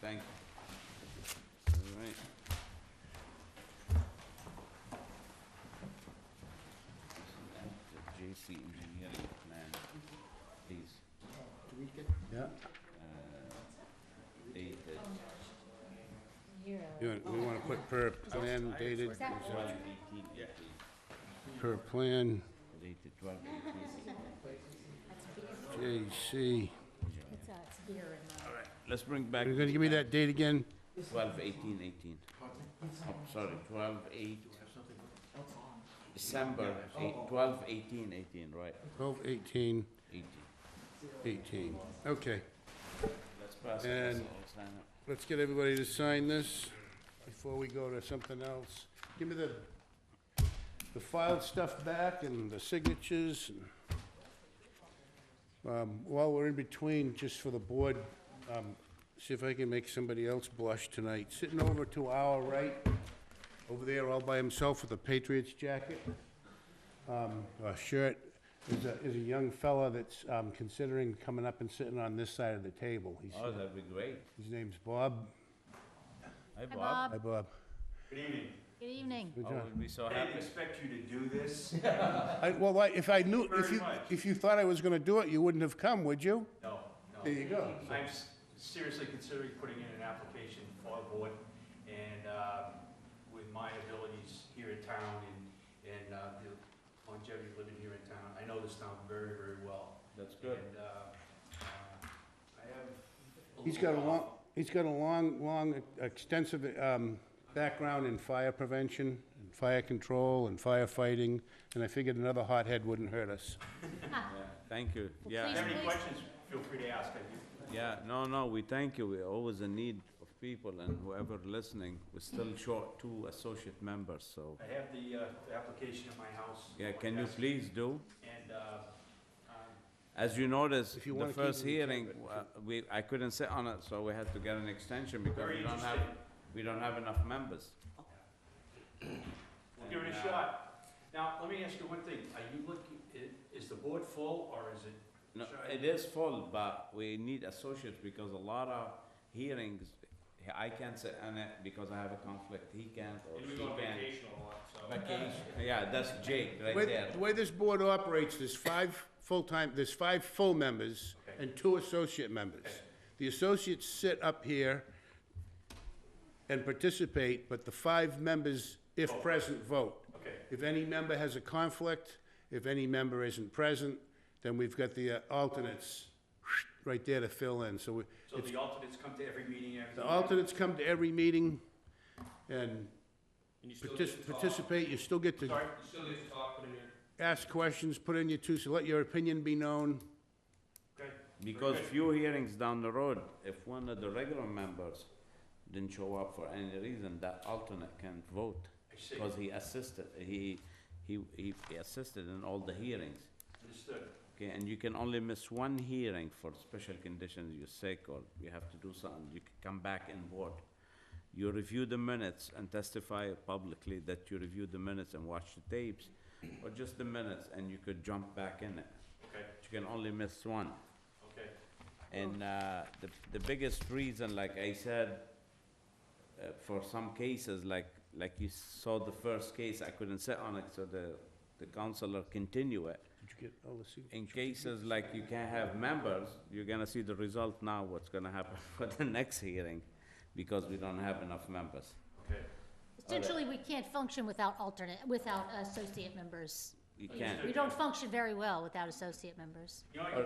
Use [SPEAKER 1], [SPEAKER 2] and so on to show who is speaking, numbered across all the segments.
[SPEAKER 1] Thank you. All right. This is the JC Engineering Plan, please,
[SPEAKER 2] Do we get,
[SPEAKER 1] dated
[SPEAKER 3] You want- We want to put per plan dated,
[SPEAKER 1] twelve eighteen eighteen,
[SPEAKER 3] per plan,
[SPEAKER 1] dated twelve eighteen.
[SPEAKER 3] JC.
[SPEAKER 4] It's, uh, it's here in the.
[SPEAKER 1] All right, let's bring back.
[SPEAKER 3] You're going to give me that date again?
[SPEAKER 1] Twelve eighteen eighteen. Oh, sorry, twelve eight. December, eight, twelve eighteen eighteen, right,
[SPEAKER 3] 12/18/18.
[SPEAKER 1] eighteen.
[SPEAKER 3] Okay,
[SPEAKER 1] Let's pass it, let's
[SPEAKER 3] And-
[SPEAKER 1] all sign up.
[SPEAKER 3] let's get everybody to sign this before we go to something else. Give me the, the filed stuff back and the signatures. and- Um, While we're in between, just for the board, um, see if I can make somebody else blush tonight. Sitting over to our right, over there all by himself with a Patriots jacket, um, or shirt, is a, is a young fella that's um, considering coming up and sitting on this side of the table. He's-
[SPEAKER 1] Oh, that'd be great.
[SPEAKER 3] His name's Bob.
[SPEAKER 1] Hi,
[SPEAKER 4] Hi,
[SPEAKER 1] Bob.
[SPEAKER 3] Hi,
[SPEAKER 4] Bob.
[SPEAKER 3] Bob.
[SPEAKER 5] Good evening.
[SPEAKER 4] Good evening.
[SPEAKER 3] Good
[SPEAKER 1] I
[SPEAKER 3] job.
[SPEAKER 1] would be so
[SPEAKER 5] I didn't
[SPEAKER 1] happy.
[SPEAKER 5] expect you to do this.
[SPEAKER 3] I- Well, I- if I knew, if
[SPEAKER 5] Very
[SPEAKER 3] you,
[SPEAKER 5] much.
[SPEAKER 3] if you thought I was gonna do it, you wouldn't have come, would you?
[SPEAKER 5] No, no.
[SPEAKER 3] There you go.
[SPEAKER 5] I'm s- seriously considering putting in an application for the board, and um, with my abilities here in town and, and uh, the longevity of living here in town, I know this town very, very well.
[SPEAKER 1] That's good.
[SPEAKER 5] And uh, uh, I have.
[SPEAKER 3] He's got a long, he's got a long, long, extensive um, background in fire prevention, and fire control, and firefighting, and I figured another hothead wouldn't hurt us.
[SPEAKER 1] Yeah, Thank you.
[SPEAKER 4] Well,
[SPEAKER 5] uh, If you
[SPEAKER 1] Yeah,
[SPEAKER 5] have any
[SPEAKER 4] Please.
[SPEAKER 5] questions, feel free to ask. I do-
[SPEAKER 1] yeah, no, no, we thank you. We're always in need of people and whoever listening, we're still short two associate members, so.
[SPEAKER 5] I have the uh, the application in my house.
[SPEAKER 1] Yeah, can you please do?
[SPEAKER 5] And uh, um,
[SPEAKER 1] As you notice,
[SPEAKER 3] If you
[SPEAKER 1] the
[SPEAKER 3] wanna keep
[SPEAKER 1] first
[SPEAKER 3] it, you can,
[SPEAKER 1] hearing,
[SPEAKER 3] but-
[SPEAKER 1] uh, we, I couldn't sit on it, so we had to get an extension because
[SPEAKER 5] Very
[SPEAKER 1] we don't have,
[SPEAKER 5] interesting.
[SPEAKER 1] we don't have enough members.
[SPEAKER 5] We'll give it a shot. Now, let me ask you one thing, are you looking, i- is the board full, or is it,
[SPEAKER 1] No,
[SPEAKER 5] Sure.
[SPEAKER 1] it is full, but we need associates because a lot of hearings, I can't sit on it because I have a conflict, he can't or she can't.
[SPEAKER 5] a lot, so.
[SPEAKER 1] Vacation, yeah, that's Jake right
[SPEAKER 3] Way-
[SPEAKER 1] there.
[SPEAKER 3] The way this board operates, there's five full-time, there's five full members
[SPEAKER 5] Okay.
[SPEAKER 3] and two associate members. The associates sit up here and participate, but the five members, if present, vote.
[SPEAKER 5] Okay.
[SPEAKER 3] If any member has a conflict, if any member isn't present, then we've got the uh, alternates right there to fill in. So we-
[SPEAKER 5] So the alternates come to every meeting, everything?
[SPEAKER 3] the alternates come to every meeting and partic- participate. You still get to
[SPEAKER 5] Sorry,
[SPEAKER 3] ask questions, put in your two, so let your opinion be known.
[SPEAKER 5] okay.
[SPEAKER 1] Because
[SPEAKER 5] Very good.
[SPEAKER 1] few hearings down the road, if one of the regular members didn't show up for any reason, that alternate can vote.
[SPEAKER 5] I see,
[SPEAKER 1] Because he assisted, he, he, he he assisted in all the hearings.
[SPEAKER 5] understood.
[SPEAKER 1] Okay, and you can only miss one hearing for special conditions, you're sick or you have to do something, you can come back and vote. You review the minutes and testify publicly that you reviewed the minutes and watched the tapes, or just the minutes, and you could jump back in it.
[SPEAKER 5] Okay,
[SPEAKER 1] You can only miss one.
[SPEAKER 5] okay,
[SPEAKER 1] And uh, the, the biggest reason, like I said, uh, for some cases, like, like you saw the first case, I couldn't sit on it, so the, the counselor continue it.
[SPEAKER 3] Did you get all the sig-
[SPEAKER 1] In cases like you can't have members, you're gonna see the result now, what's gonna happen for the next hearing, because we don't have enough members.
[SPEAKER 5] okay.
[SPEAKER 4] Essentially, we can't function without alternate, without associate members.
[SPEAKER 1] You
[SPEAKER 4] We-
[SPEAKER 1] can't.
[SPEAKER 4] We don't function very well without associate members.
[SPEAKER 5] You know,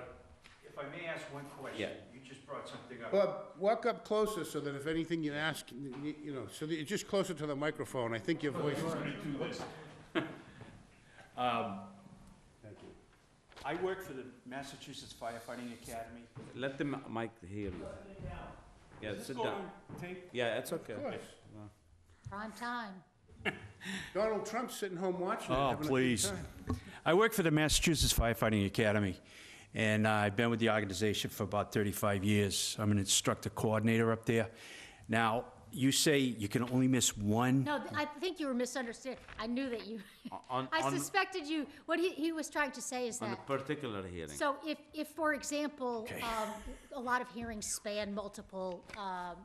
[SPEAKER 5] if I may ask one question,
[SPEAKER 1] Yeah.
[SPEAKER 5] you just brought something up.
[SPEAKER 3] Bob, walk up closer so that if anything you ask, y- y- you know, so that you're just closer to the microphone. I think your voice is...
[SPEAKER 5] do this.
[SPEAKER 3] Thank you.
[SPEAKER 5] Um, I work for the Massachusetts Firefighting Academy.
[SPEAKER 1] Let the mi- mic hear you. Yeah,
[SPEAKER 5] Is this
[SPEAKER 1] sit
[SPEAKER 5] going
[SPEAKER 1] down.
[SPEAKER 5] on tape?
[SPEAKER 1] Yeah, it's okay.
[SPEAKER 3] Of course.
[SPEAKER 4] Prime time.
[SPEAKER 3] Donald Trump's sitting home watching it.
[SPEAKER 6] Oh,
[SPEAKER 3] having a good
[SPEAKER 6] please.
[SPEAKER 3] time.
[SPEAKER 6] I work for the Massachusetts Firefighting Academy, and I've been with the organization for about 35 years. I'm an instructor coordinator up there. Now, you say you can only miss one?
[SPEAKER 4] No, th- I think you were misunderstanding. I knew that you,
[SPEAKER 1] On-
[SPEAKER 4] I
[SPEAKER 1] on-
[SPEAKER 4] suspected you, what he, he was trying to say is
[SPEAKER 1] On a
[SPEAKER 4] that,
[SPEAKER 1] particular hearing.
[SPEAKER 4] so if, if, for example,
[SPEAKER 6] Okay.
[SPEAKER 4] um, a lot of hearings span multiple, um,